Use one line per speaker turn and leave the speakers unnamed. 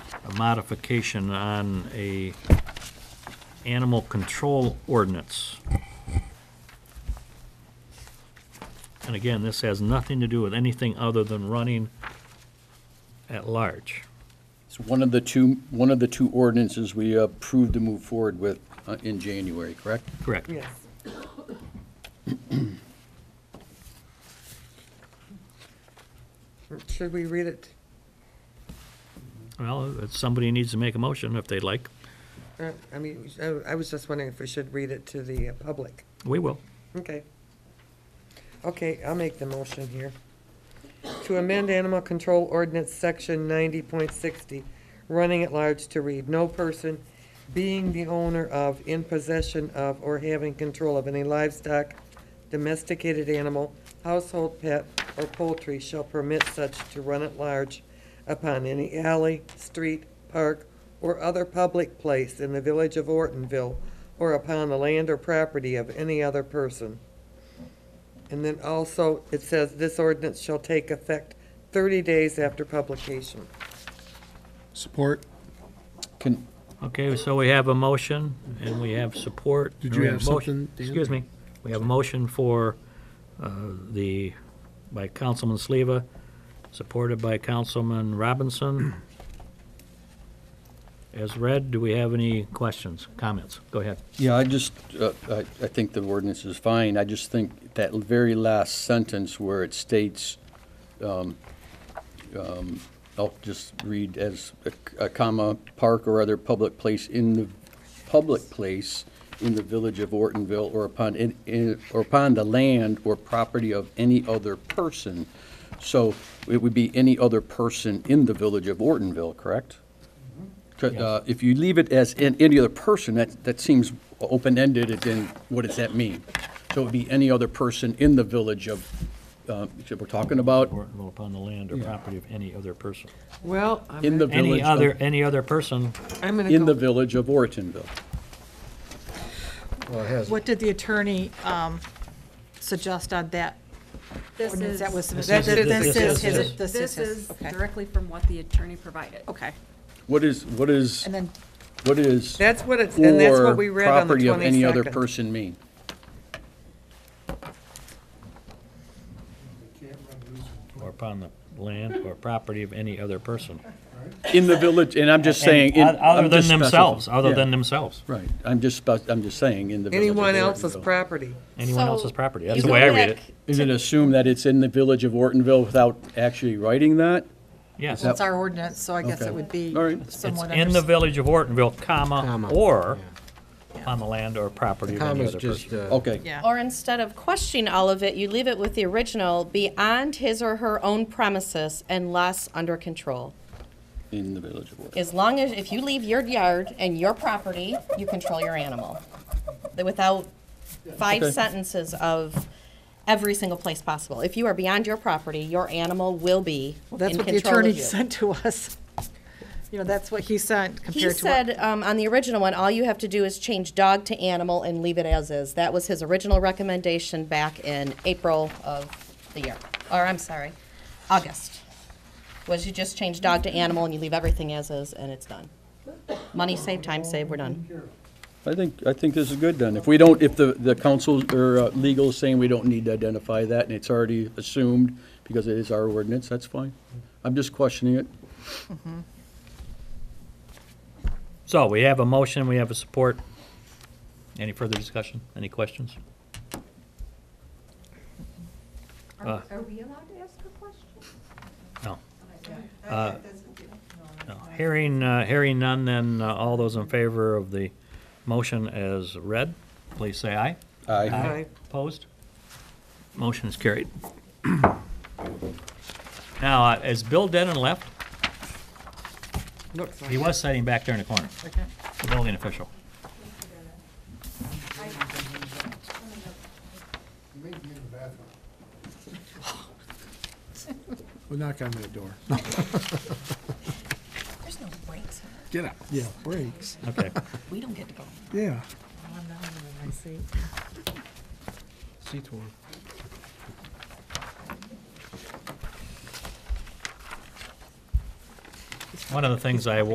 modification on a animal control ordinance. And again, this has nothing to do with anything other than running at large.
It's one of the two, one of the two ordinances we approved to move forward with uh, in January, correct?
Correct.
Yes. Should we read it?
Well, if somebody needs to make a motion if they'd like.
Uh, I mean, I- I was just wondering if we should read it to the uh, public.
We will.
Okay. Okay, I'll make the motion here. To amend Animal Control Ordinance Section 90.60, running at large to read, "No person being the owner of, in possession of, or having control of any livestock, domesticated animal, household pet, or poultry shall permit such to run at large upon any alley, street, park, or other public place in the village of Ortonville or upon the land or property of any other person. And then also, it says, this ordinance shall take effect 30 days after publication.
Support.
Can,
Okay, so we have a motion and we have support.
Did
and
you
we
have
a motion-
something, Dan?
Excuse me. We have a motion for uh, the, by Councilman Sleva, supported by Councilman Robinson. As read, do we have any questions, comments? Go ahead.
yeah, I just, uh, I, I think the ordinance is fine. I just think that very last sentence where it states, um, um, I'll just read as a, a comma, park or other public place in the, public place in the village of Ortonville or upon, in- in, or upon the land or property of any other person. So it would be any other person in the village of Ortonville, correct? Tr- uh, If you leave it as in- any other person, that, that seems open-ended, and then what does that mean? So it would be any other person in the village of, uh, that we're talking about,
Or upon the land or property of any other person.
Well,
in the village uh,
Any other,
of,
any other person,
I'm going to
in the
go,
village of Ortonville.
What did the attorney um, suggest on that?
This
ordinance
is,
that was
this
submitted?
is-
This is,
this
his-
is-
this is,
is
his- okay,
directly from what the attorney provided.
okay.
What is, what is,
And then,
what is?
that's what it's, and that's
or
what we read on the
Property of any other
22nd.
person mean?
or upon the land or property of any other person.
In the village, and I'm just saying. in-
And o- Other
I'm just
than themselves,
specifying.
other
Yeah,
than themselves,
Right, I'm just, spec- I'm just saying, in the village of
Anyone else's
Ortonville.
property.
anyone
So,
else's property. That's
you
the way I
go
read it.
back-
Is it assumed that it's in the village of Ortonville without actually writing that?
Yes.
it's our ordinance, so I guess
Okay.
it would be
All right.
It's in
somewhat.
the
understood.
village of Ortonville, comma,
Comma,
or on the land or property of any
Comma's
other person. Oh.
just, uh,
Okay.
Yeah.
Or instead of questioning all of it, you leave it with the original, beyond his or her own premises unless under control.
In the village of Ortonville.
As long as, if you leave your yard and your property, you control your animal. That Without five
Okay.
sentences of every single place possible. If you are beyond your property, your animal will be in
Well,
control of
That's
you.
what the attorney sent to us. You know, that's what he sent
He
compared to what.
said, um, on the original one, all you have to do is change dog to animal and leave it as is. That was his original recommendation back in April of the year, or I'm sorry, August. Was you just change dog to animal and you leave everything as is and it's done. Money saved, time saved, we're done.
I think, I think this is good then. If we don't, if the, the council or uh, legal is saying we don't need to identify that and it's already assumed because it is our ordinance, that's fine. I'm just questioning it.
So we have a motion, we have a support. Any further discussion? Any questions?
Are are we allowed to ask a question?
Uh, No. Uh, no. Hearing, uh, hearing none, then uh, all those in favor of the motion as read, please say aye.
Aye.
Aye.
Opposed? Motion is carried. Now, uh, as Bill Denon left,
Looks like
he
it.
was sitting back there in the corner, the building official.
We'll knock on that door. There's no brakes Get out. Yeah, brakes.
Okay.
We don't get to go.
Yeah.
One of the things I